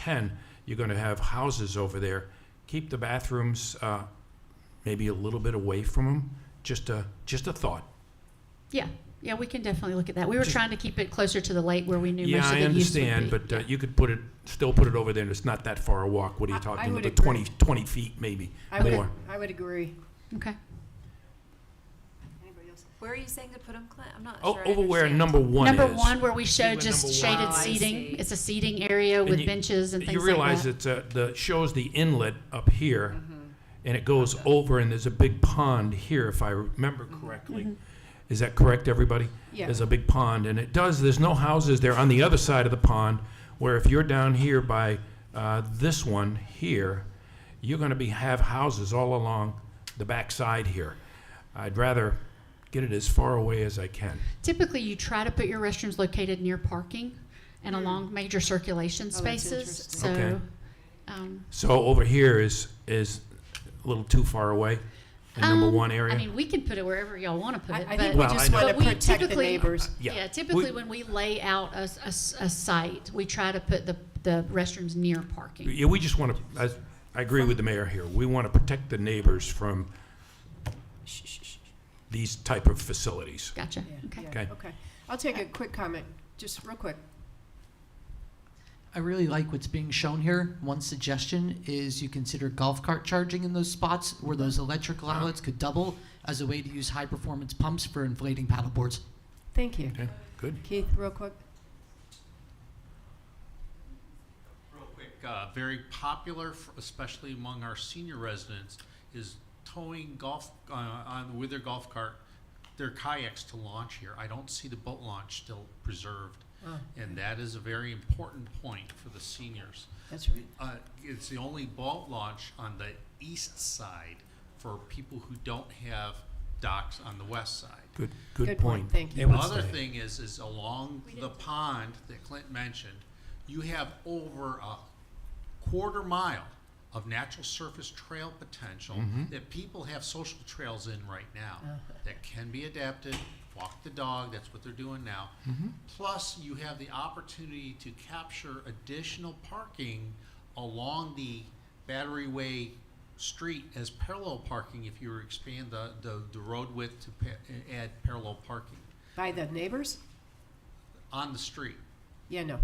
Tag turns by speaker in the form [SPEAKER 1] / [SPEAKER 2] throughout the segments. [SPEAKER 1] ten, you're gonna have houses over there. Keep the bathrooms, uh, maybe a little bit away from them. Just a, just a thought.
[SPEAKER 2] Yeah, yeah, we can definitely look at that. We were
[SPEAKER 1] Just-
[SPEAKER 2] trying to keep it closer to the lake where we knew
[SPEAKER 1] Yeah,
[SPEAKER 2] most of
[SPEAKER 1] I
[SPEAKER 2] the use would be.
[SPEAKER 1] understand, but uh, you could put it, still put it over there and it's not that far a walk. What are
[SPEAKER 3] I-
[SPEAKER 1] you
[SPEAKER 3] I
[SPEAKER 1] talking
[SPEAKER 3] would
[SPEAKER 1] about?
[SPEAKER 3] agree.
[SPEAKER 1] 20 20 feet maybe,
[SPEAKER 3] I would,
[SPEAKER 1] more.
[SPEAKER 3] I would agree.
[SPEAKER 2] Okay,
[SPEAKER 4] Anybody else? Where are you saying to put them, Clint? I'm not
[SPEAKER 1] O-
[SPEAKER 4] sure. I
[SPEAKER 1] Oh, Over where
[SPEAKER 4] understand.
[SPEAKER 1] number one is.
[SPEAKER 2] number one, where we
[SPEAKER 1] where
[SPEAKER 2] showed
[SPEAKER 1] number
[SPEAKER 2] just
[SPEAKER 1] one
[SPEAKER 2] shaded
[SPEAKER 4] is. Oh, I see.
[SPEAKER 2] seating, it's a seating area
[SPEAKER 1] And
[SPEAKER 2] with
[SPEAKER 1] you-
[SPEAKER 2] benches and
[SPEAKER 1] You
[SPEAKER 2] things like
[SPEAKER 1] realize
[SPEAKER 2] that.
[SPEAKER 1] it's uh the, shows the inlet up here, and it goes over, and there's a big pond here, if I remember
[SPEAKER 2] Mm-hmm.
[SPEAKER 1] correctly. Is that correct, everybody?
[SPEAKER 3] Yeah.
[SPEAKER 1] There's a big pond, and it does, there's no houses there on the other side of the pond, where if you're down here by, uh, this one here, you're gonna be, have houses all along the backside here. I'd rather get it as far away as I can.
[SPEAKER 2] Typically, you try to put your restrooms located near parking and along major circulation
[SPEAKER 3] Hmm. Oh, that's
[SPEAKER 2] spaces,
[SPEAKER 3] interesting.
[SPEAKER 2] so.
[SPEAKER 1] Okay.
[SPEAKER 2] um,
[SPEAKER 1] So over here is, is a little too far away, in number
[SPEAKER 2] um,
[SPEAKER 1] one area?
[SPEAKER 2] I mean, we can put it wherever y'all want to put
[SPEAKER 3] I,
[SPEAKER 2] it,
[SPEAKER 3] I
[SPEAKER 2] but.
[SPEAKER 3] think we
[SPEAKER 1] Well, I
[SPEAKER 3] just
[SPEAKER 1] know.
[SPEAKER 3] want to
[SPEAKER 2] But we
[SPEAKER 3] protect the
[SPEAKER 2] typically-
[SPEAKER 3] neighbors.
[SPEAKER 1] Yeah.
[SPEAKER 2] Yeah,
[SPEAKER 1] We-
[SPEAKER 2] typically when we lay out a, s- a s- a site, we try to put the, the restrooms near parking.
[SPEAKER 1] Yeah, we just want to, I, I agree with the mayor here. We want to protect the neighbors from
[SPEAKER 4] Shh, shh, shh.
[SPEAKER 1] these type of facilities.
[SPEAKER 2] Gotcha,
[SPEAKER 3] Yeah,
[SPEAKER 2] okay.
[SPEAKER 3] yeah,
[SPEAKER 1] Okay.
[SPEAKER 3] Okay. I'll take a quick comment, just real quick.
[SPEAKER 5] I really like what's being shown here. One suggestion is you consider golf cart charging in those spots where those electrical outlets could double as a way to use high performance pumps for inflating paddle boards.
[SPEAKER 3] Thank you.
[SPEAKER 1] Okay, good.
[SPEAKER 3] Keith, real quick.
[SPEAKER 6] Real quick, uh, very popular, f- especially among our senior residents, is towing golf, uh, on, with their golf cart, their kayaks to launch here. I don't see the boat launch still preserved.
[SPEAKER 3] Oh.
[SPEAKER 6] And that is a very important point for the seniors.
[SPEAKER 3] That's right.
[SPEAKER 6] Uh, it's the only boat launch on the east side for people who don't have docks on the west side.
[SPEAKER 1] Good, good
[SPEAKER 3] Good point,
[SPEAKER 1] point.
[SPEAKER 3] thank you.
[SPEAKER 1] It would
[SPEAKER 6] Another
[SPEAKER 1] stay.
[SPEAKER 6] thing is, is along the pond that Clint mentioned, you have over a quarter mile of natural surface trail potential
[SPEAKER 1] Mm-hmm.
[SPEAKER 6] that people have social trails in right now
[SPEAKER 3] Uh-huh.
[SPEAKER 6] that can be adapted, walk the dog, that's what they're doing now.
[SPEAKER 1] Mm-hmm.
[SPEAKER 6] Plus, you have the opportunity to capture additional parking along the Battery Way street as parallel parking if you were to expand the, the, the road width to pa- add parallel parking
[SPEAKER 3] By the neighbors?
[SPEAKER 6] on the street.
[SPEAKER 3] Yeah, no.
[SPEAKER 6] Uh,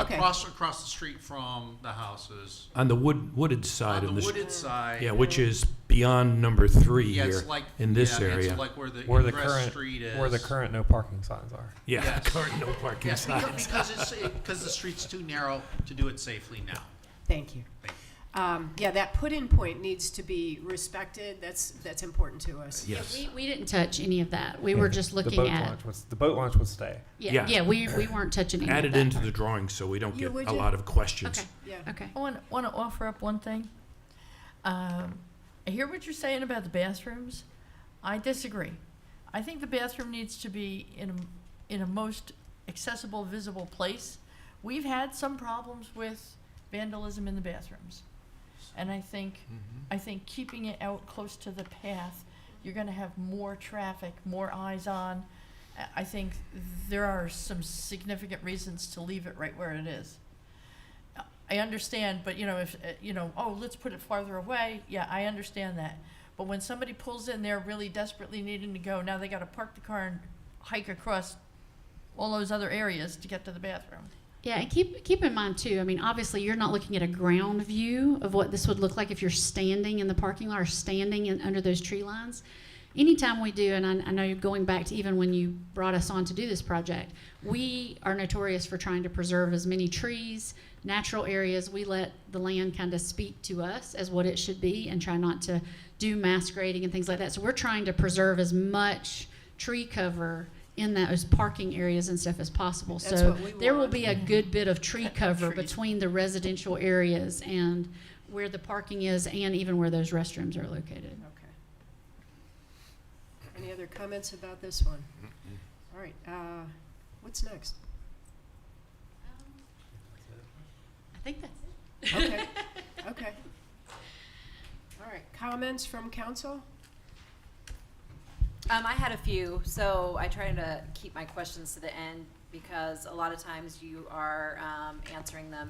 [SPEAKER 3] Okay.
[SPEAKER 6] Across, across the street from the houses,
[SPEAKER 1] On the wood, wooded
[SPEAKER 6] on
[SPEAKER 1] side
[SPEAKER 6] the
[SPEAKER 1] of the, str-
[SPEAKER 6] wooded side.
[SPEAKER 1] yeah, which is beyond number three
[SPEAKER 6] Yeah, it's
[SPEAKER 1] here,
[SPEAKER 6] like-
[SPEAKER 1] in this
[SPEAKER 6] yeah,
[SPEAKER 1] area.
[SPEAKER 6] It's like where the
[SPEAKER 7] Where the
[SPEAKER 6] ingress
[SPEAKER 7] current,
[SPEAKER 6] street is.
[SPEAKER 7] where the current no parking signs are.
[SPEAKER 1] Yeah,
[SPEAKER 6] yes.
[SPEAKER 1] current no parking
[SPEAKER 6] Yes,
[SPEAKER 1] sign.
[SPEAKER 6] because, because it's, because the street's too narrow to do it safely now.
[SPEAKER 3] Thank you. Um, yeah, that put-in point needs to be respected. That's, that's important to us.
[SPEAKER 2] Yeah,
[SPEAKER 1] Yes.
[SPEAKER 2] We, we didn't touch any of that. We were just
[SPEAKER 7] the
[SPEAKER 2] looking
[SPEAKER 7] boat
[SPEAKER 2] at,
[SPEAKER 7] launch was the boat launch would stay.
[SPEAKER 2] yeah,
[SPEAKER 1] Yeah.
[SPEAKER 2] yeah, we, we weren't touching any of that.
[SPEAKER 1] Add it into the drawing so we don't
[SPEAKER 3] You
[SPEAKER 1] get
[SPEAKER 3] would
[SPEAKER 1] a
[SPEAKER 3] do-
[SPEAKER 1] lot of questions.
[SPEAKER 2] Okay,
[SPEAKER 3] Yeah.
[SPEAKER 2] okay.
[SPEAKER 8] I want, want to offer up one thing. Um, I hear what you're saying about the bathrooms. I disagree. I think the bathroom needs to be in a, in a most accessible, visible place. We've had some problems with vandalism in the bathrooms. And I think,
[SPEAKER 6] Mm-hmm.
[SPEAKER 8] I think keeping it out close to the path, you're gonna have more traffic, more eyes on. I- I think there are some significant reasons to leave it right where it is. I understand, but you know, if, uh, you know, oh, let's put it farther away, yeah, I understand that. But when somebody pulls in there really desperately needing to go, now they gotta park the car and hike across all those other areas to get to the bathroom.
[SPEAKER 2] Yeah, and keep keep in mind too. I mean, obviously, you're not looking at a ground view of what this would look like if you're standing in the parking lot or standing in, under those tree lines. Anytime we do, and I, I know you're going back to even when you brought us on to do this project, we are notorious for trying to preserve as many trees, natural areas. We let the land kind of speak to us as what it should be, and try not to do mass grading and things like that. So we're trying to preserve as much tree cover in those parking areas and stuff as possible.
[SPEAKER 3] That's
[SPEAKER 2] so
[SPEAKER 3] what we
[SPEAKER 2] there will
[SPEAKER 3] want.
[SPEAKER 2] be a good bit of tree cover
[SPEAKER 8] Trees.
[SPEAKER 2] between the residential areas and where the parking is and even where those restrooms are located.
[SPEAKER 3] Okay. Any other comments about this one? All right, uh, what's next?
[SPEAKER 2] I think that's it.
[SPEAKER 3] Okay, okay. All right, comments from council?
[SPEAKER 4] Um, I had a few, so I try to keep my questions to the end because a lot of times you are um, answering them